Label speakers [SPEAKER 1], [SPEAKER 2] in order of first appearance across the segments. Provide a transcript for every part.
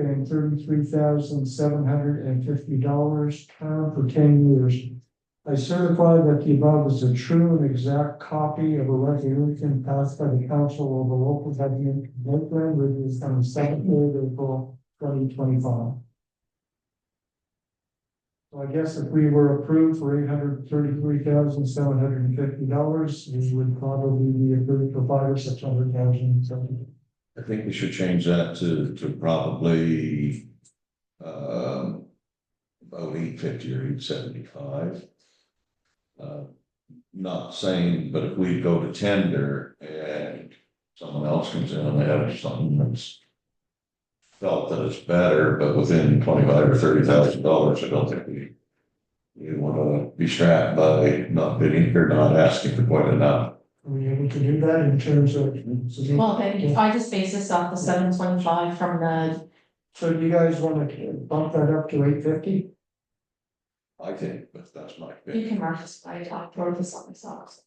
[SPEAKER 1] and thirty-three thousand seven hundred and fifty dollars, term for ten years. I certify that the above is a true and exact copy of a resolution passed by the council of the local government of Lakeland, which is on the second day of April twenty twenty-five. So I guess if we were approved for eight hundred thirty-three thousand seven hundred and fifty dollars, we would probably be approved for five or six hundred thousand, so.
[SPEAKER 2] I think we should change that to, to probably, um, about eight fifty or eight seventy-five. Uh, not saying, but if we go to tender and someone else comes in and they have something that's felt that it's better, but within twenty-five or thirty thousand dollars, I don't think we we wanna be strapped by not bidding or not asking for quite enough.
[SPEAKER 1] Are we able to do that in terms of?
[SPEAKER 3] Well, then, if I just base this off the seven twenty-five from the,
[SPEAKER 1] So you guys wanna bump that up to eight fifty?
[SPEAKER 2] I think, but that's my opinion.
[SPEAKER 3] you can mark this by top or this on the socks.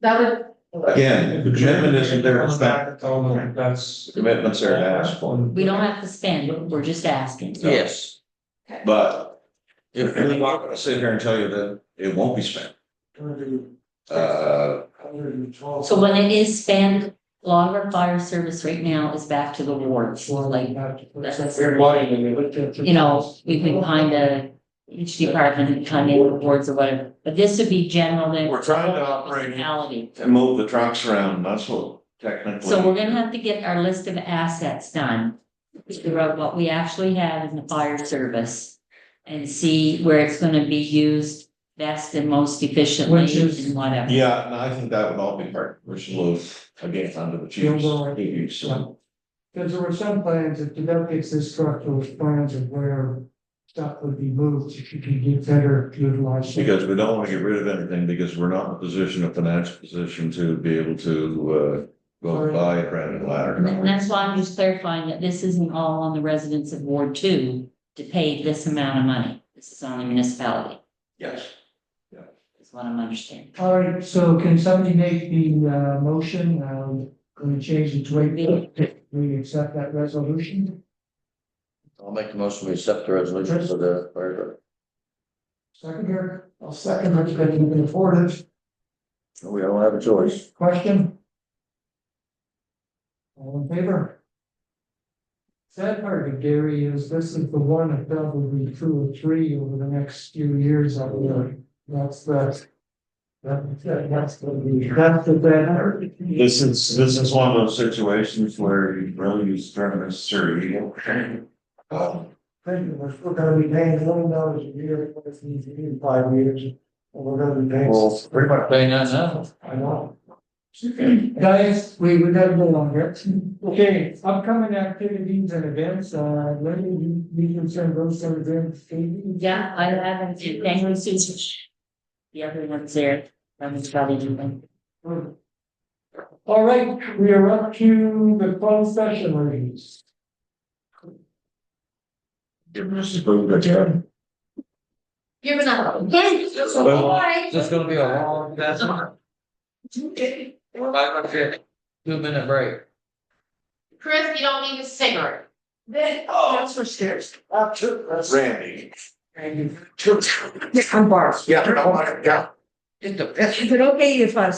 [SPEAKER 3] That would,
[SPEAKER 2] Again, the commitment isn't there, it's back.
[SPEAKER 1] That's.
[SPEAKER 2] Commitments are asked for.
[SPEAKER 4] We don't have to spend, we're just asking.
[SPEAKER 2] Yes.
[SPEAKER 3] Okay.
[SPEAKER 2] But if we're not gonna sit here and tell you that it won't be spent, uh,
[SPEAKER 4] So when it is spent, a lot of our fire service right now is back to the wards, like, that's- you know, we've been kind of, each department kind of wards or whatever, but this would be general that.
[SPEAKER 2] We're trying to operate in-
[SPEAKER 4] Municipality.
[SPEAKER 2] to move the trucks around, that's what technically.
[SPEAKER 4] So we're gonna have to get our list of assets done. Figure out what we actually have in the fire service and see where it's gonna be used best and most efficiently
[SPEAKER 1] Which is-
[SPEAKER 4] and whatever.
[SPEAKER 2] Yeah, and I think that would all be part, which is again, under the chief's. duties, so.
[SPEAKER 1] Cause there were some plans, if the delegates this truck, those plans of where stuff would be moved, if you could get better utilized.
[SPEAKER 2] Because we don't wanna get rid of anything, because we're not in a position, a financial position to be able to, uh, go and buy a brand new
[SPEAKER 4] And that-
[SPEAKER 2] ladder.
[SPEAKER 4] that's why I'm just clarifying that this isn't all on the residents of Ward Two to pay this amount of money. This is on the municipality,
[SPEAKER 2] Yes.
[SPEAKER 4] is what I'm understanding.
[SPEAKER 1] All right, so can somebody make the uh motion, um, gonna change it to eight fifty, we accept that resolution?
[SPEAKER 5] I'll make the motion, we accept the resolution for the, for
[SPEAKER 1] Second here, I'll second, that's gonna be afforded.
[SPEAKER 5] the, we don't have a choice.
[SPEAKER 1] Question? All in favor? Sad part of Gary is this is the one that probably two or three over the next few years that we are, that's the. That, that- that's the, that's the banner.
[SPEAKER 2] This is, this is one of those situations where you really use tournaments, sir, you don't.
[SPEAKER 1] Um, Thank you, we're still gonna be paying eleven dollars a year for this in in five years, and we're gonna be paying.
[SPEAKER 5] Well, pretty much paying that now.
[SPEAKER 1] I know. Guys, we would have no longer. Okay, upcoming activities and events, uh, when you, you can send those to them, Katie?
[SPEAKER 4] Yeah, I haven't, thank you, Susan. The other one's there, I'm just probably doing.
[SPEAKER 1] All right, we are up to the closed session ladies.
[SPEAKER 3] you're gonna.
[SPEAKER 5] This is gonna be a long, that's not. Two minute break.
[SPEAKER 3] Chris, you don't need a cigarette.
[SPEAKER 1] Oh, That's for stairs. Up to.
[SPEAKER 2] Randy.
[SPEAKER 1] Randy.
[SPEAKER 5] Yeah, oh my God. Get the piss.
[SPEAKER 6] Is it okay if I